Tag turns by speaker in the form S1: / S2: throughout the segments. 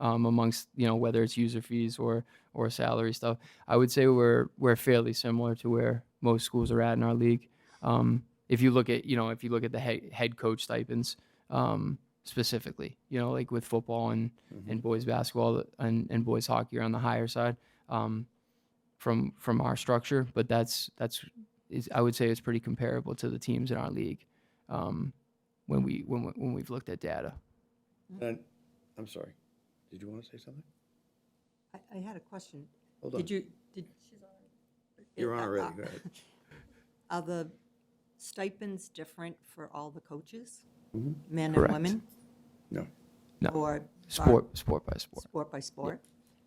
S1: um, amongst you know whether it's user fees or or salary stuff. I would say we're we're fairly similar to where most schools are at in our league. Um, if you look at you know if you look at the head, head coach stipends um, specifically, you know like with football and and boys basketball and, and boys hockey are on the higher side um, from from our structure, but that's that's is, I would say it's pretty comparable to the teams in our league um, when we when we- when we've looked at data.
S2: And, I'm sorry, did you want to say something?
S3: I, I had a question.
S2: Hold on.
S3: Did you, did?
S2: You're on
S3: Uh,
S2: already,
S3: uh,
S2: go ahead.
S3: Are the stipends different for all the coaches?
S2: Mm-hmm.
S3: Men and women?
S2: No,
S1: No.
S3: Or var-
S1: Sport sport by sport,
S3: sport by sport?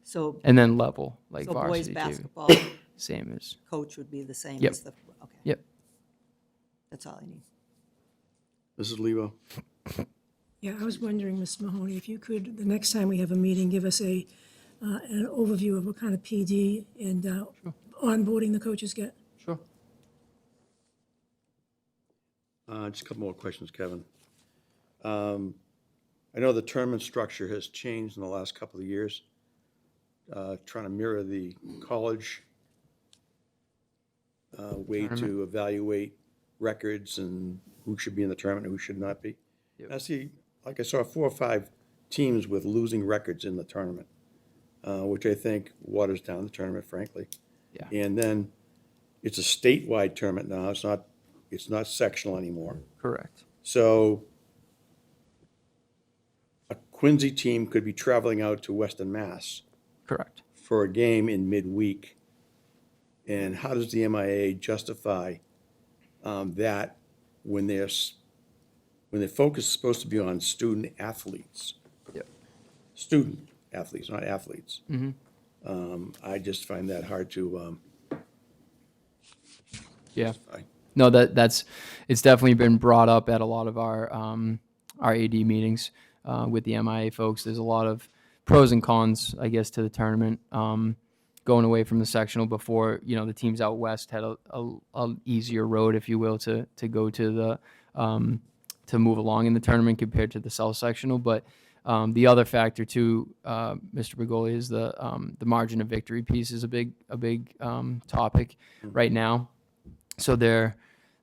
S3: So,
S1: and then level like
S3: so boys
S1: varsity too,
S3: basketball
S1: same as
S3: coach would be the same
S1: Yep.
S3: as the, okay,
S1: yep.
S3: that's all I need.
S2: Mrs. Lebo,
S4: Yeah, I was wondering, Ms. Mahoney, if you could, the next time we have a meeting, give us a, uh, an overview of what kind of PD and uh, onboarding the coaches get.
S1: Sure.
S2: uh, just a couple more questions, Kevin. Um, I know the tournament structure has changed in the last couple of years, uh, trying to mirror the college uh, way to evaluate records and who should be in the tournament and who should not be. I see, like I saw four or five teams with losing records in the tournament, uh, which I think waters down the tournament, frankly.
S1: Yeah.
S2: And then it's a statewide tournament now. It's not, it's not sectional anymore.
S1: Correct.
S2: So a Quincy team could be traveling out to Western Mass
S1: Correct.
S2: for a game in midweek. And how does the MIA justify um, that when their, s- when their focus is supposed to be on student athletes?
S1: Yep.
S2: Student athletes, not athletes. Um, I just find that hard to, um,
S1: Yeah.
S2: I-
S1: No, that that's it's definitely been brought up at a lot of our um, our AD meetings uh, with the MIA folks. There's a lot of pros and cons, I guess, to the tournament. Um, going away from the sectional before, you know, the teams out west had a, a, a easier road, if you will, to to go to the um, to move along in the tournament compared to the south sectional. But um, the other factor too, uh, Mr. Bergoli, is the um, the margin of victory piece is a big a big um, topic right now so there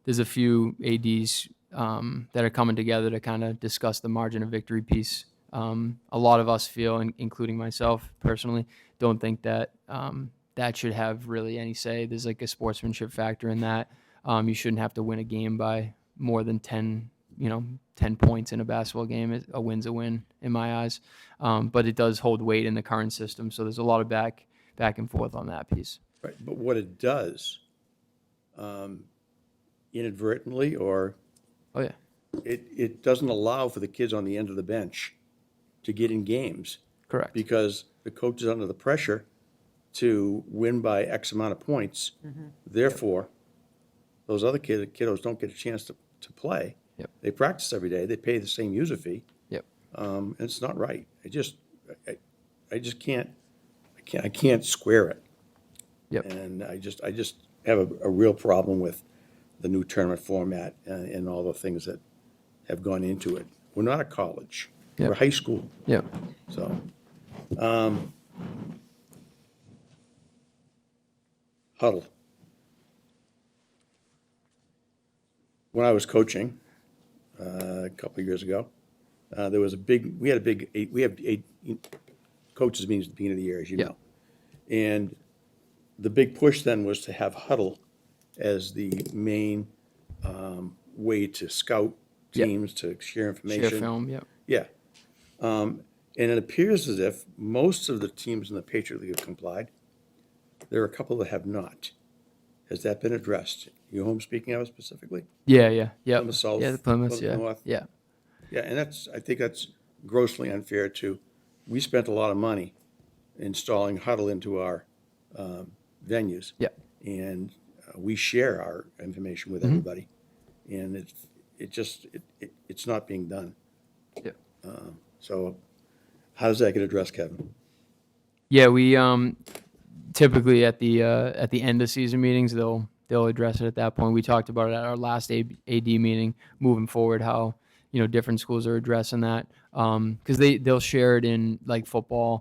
S1: there's a few ads um, that are coming together to kind of discuss the margin of victory piece um, a lot of us feel in, including myself personally don't think that um, that should have really any say there's like a sportsmanship factor in that um, you shouldn't have to win a game by more than 10 you know 10 points in a basketball game It- a win's a win in my eyes um, but it does hold weight in the current system so there's a lot of back back and forth on that piece
S2: Right, but what it does, um, inadvertently, or
S1: oh yeah
S2: it, it doesn't allow for the kids on the end of the bench to get in games
S1: correct
S2: because the coach is under the pressure to win by X amount of points. Therefore, those other kid, kiddos don't get a chance to, to play.
S1: Yep.
S2: They practice every day, they pay the same user fee,
S1: yep
S2: um, and it's not right. I just, I, I- I just can't, I can't, I can't square it.
S1: Yep.
S2: And I just, I just have a, a real problem with the new tournament format and, and all the things that have gone into it. We're not a college, we're
S1: Yep.
S2: high school,
S1: yep
S2: so. um, Huddle. When I was coaching, uh, a couple of years ago, uh, there was a big, we had a big, eight- we have eight coaches meetings at the beginning of the year, as you
S1: Yeah.
S2: know. And the big push then was to have huddle as the main um, way to scout
S1: Yeah.
S2: teams, to share
S1: share
S2: information.
S1: film yep
S2: Yeah. Um, and it appears as if most of the teams in the Patriot League have complied. There are a couple that have not. Has that been addressed? You home speaking of it specifically?
S1: Yeah, yeah, yeah.
S2: Plymouth South,
S1: yeah, the Plymouth,
S2: Plymouth
S1: yeah,
S2: North.
S1: yeah,
S2: Yeah, and that's, I think that's grossly unfair too. We spent a lot of money installing huddle into our, um, venues.
S1: yeah,
S2: And uh, we share our information with everybody. And it's, it just, it, it, it's not being done.
S1: yeah.
S2: So how does that get addressed, Kevin?
S1: Yeah, we um typically at the uh, at the end of season meetings they'll they'll address it at that point. We talked about it at our last A- AD meeting. Moving forward, how Um, you know different schools are addressing that because they they'll share it in like football